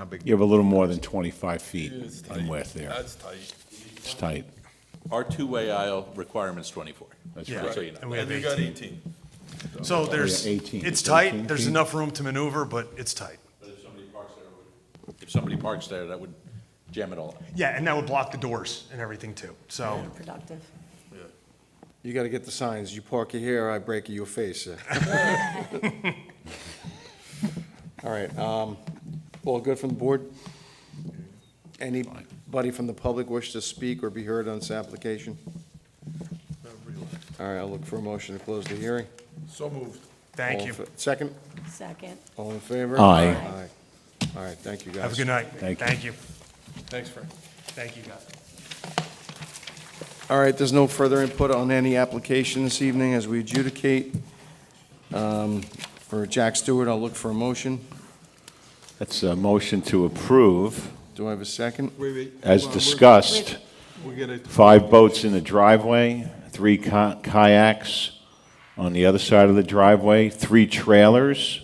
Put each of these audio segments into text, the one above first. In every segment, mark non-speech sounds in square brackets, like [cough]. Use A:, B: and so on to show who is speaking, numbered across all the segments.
A: Not big.
B: You have a little more than 25 feet
C: It's tight.
B: in width there.
C: That's tight.
B: It's tight.
D: Our two-way aisle requirement's 24.
B: That's
D: Just
B: right.
D: so you know.
E: And we
C: And
E: have
C: we got
E: 18.
C: 18.
B: Oh,
E: So there's,
B: 18.
E: it's tight,
B: 18.
E: there's enough room to maneuver, but it's tight.
D: But if somebody parks there, it would- if somebody parks there, that would jam it all up.
E: Yeah, and that would block the doors and everything too, so.
F: productive.
A: You gotta get the signs, you park you here, I break your face. [laughs] All right, um, all good from the board? Anybody from the public wish to speak or be heard on this application? All right, I'll look for a motion to close the hearing.
C: So moved.
E: Thank
A: All
E: you.
A: in fa- Second,
F: Second.
A: all in favor?
B: Aye.
A: Aye. All right, thank you, guys.
E: Have a good night.
B: Thank you.
E: Thank you.
C: Thanks, Frank.
E: Thank you, guys.
A: All right, there's no further input on any application this evening as we adjudicate. Um, For Jack Stewart, I'll look for a motion.
B: That's a motion to approve,
A: Do I have a second?
G: Wait, wait.
B: as
G: Well, we're-
B: discussed,
G: We're gonna,
B: five boats in the driveway, three ki- kayaks on the other side of the driveway, three trailers,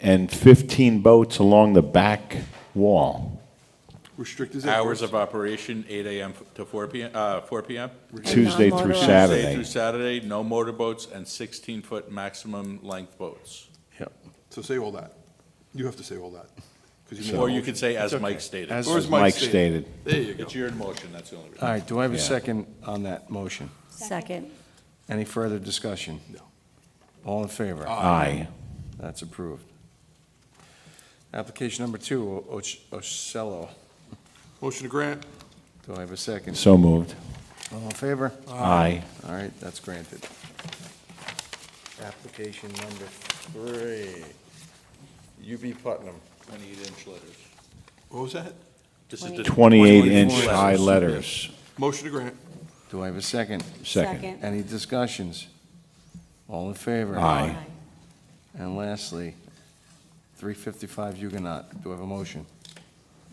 B: and 15 boats along the back wall,
G: restrict his
D: Hours
G: hours.
D: of operation, 8 AM to 4 PM, uh, 4 PM?
B: Tuesday through
F: Non-motorized.
D: Tuesday
B: Saturday.
D: through Saturday, no motorboats and 16-foot maximum length boats.
G: So say all that. You have to say all that. 'cause made a
D: Or you
G: motion.
D: could say, as
G: It's okay.
D: Mike stated.
A: As-
G: Or as
B: Mike
G: stated.
B: stated.
G: There you go.
D: It's your motion, that's the only reason.
A: All right, do I have a
B: Yeah.
A: second on that motion?
F: Second.
A: Any further discussion?
G: No.
A: All in favor?
B: Aye.
A: That's approved. Application number two, O- Och- Ocello.
G: Motion to grant.
A: Do I have a second?
B: So moved.
A: All in favor?
B: Aye.
A: All right, that's granted. Application number three, UB Putnam.
D: 28-inch letters.
G: What was that?
D: This is the
B: 28-inch
D: 24
B: high
D: letters.
B: letters.
G: Motion to grant.
A: Do I have a second?
B: Second.
A: Any discussions? All in favor?
B: Aye.
A: And lastly, 355 Huguenot. Do I have a motion?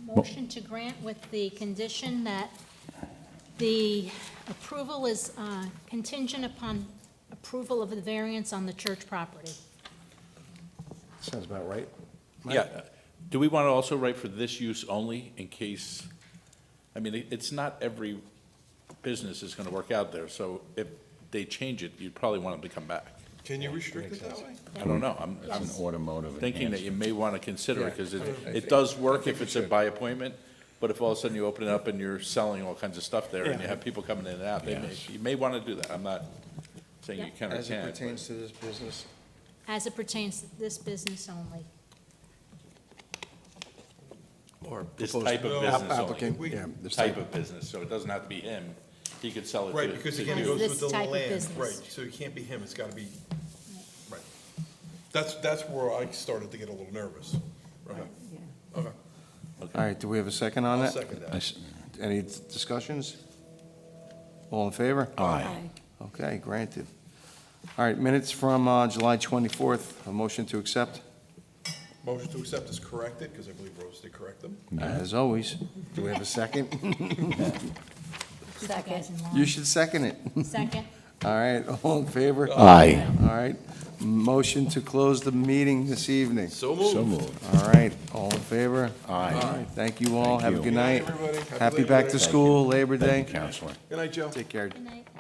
H: Motion to grant with the condition that the approval is uh, contingent upon approval of the variance on the church property.
A: Sounds about right.
D: Yeah. Do we want to also write for this use only in case, I mean, it- it's not every business is going to work out there, so if they change it, you'd probably want them to come back.
G: Can you restrict it that way?
D: I don't know. I'm I'm
H: Yes.
B: Automotive.
D: thinking that you may want to consider it because it,
A: Yeah, I- I
D: it does work if it's a by appointment, but if all of a sudden you open it up and you're selling all kinds of stuff there and you have people coming in and out, they may,
B: Yes.
D: you may want to do that. I'm not saying you
H: Yeah.
D: can or
A: As it
D: can't. but-
A: pertains to this business,
H: As it pertains to this business only.
A: or
D: This
A: proposed-
D: type of business only.
A: Applicant, yeah, this
D: Type of business, so it doesn't have to be him. He could sell it to.
C: Right, because
D: to
C: again, it
D: you.
C: goes
H: This
C: with the
H: type
C: land.
H: of business.
C: Right, so it can't be him, it's gotta be, right. That's, that's where I started to get a little nervous. Right. Okay,
A: All right, do we have a second on
C: I'll
A: that?
C: second that.
B: Nice.
A: Any d- discussions? All in favor?
B: Aye.
A: Okay, granted. All right, minutes from uh, July 24th, a motion to accept,
C: Motion to accept is corrected, because I believe Rose did correct them.
A: as always. Do we have a second?
C: [laughs]
F: Second.
A: You should second it.
H: Second.
A: All right, all in favor? All
B: Aye.
A: right, motion to close the meeting this evening.
C: So
B: So moved.
A: All right, all in favor?
B: Aye.
A: All right, Thank you all,
B: Thank
A: have a
B: you.
A: good
C: night,
A: night.
C: everybody. Happy
A: Happy
C: Labor
A: back
C: Day.
A: to
C: Thank
A: school, Labor Day.
B: Thank you, Counselor.
C: Good night, Joe.
A: Take care.
H: Good night.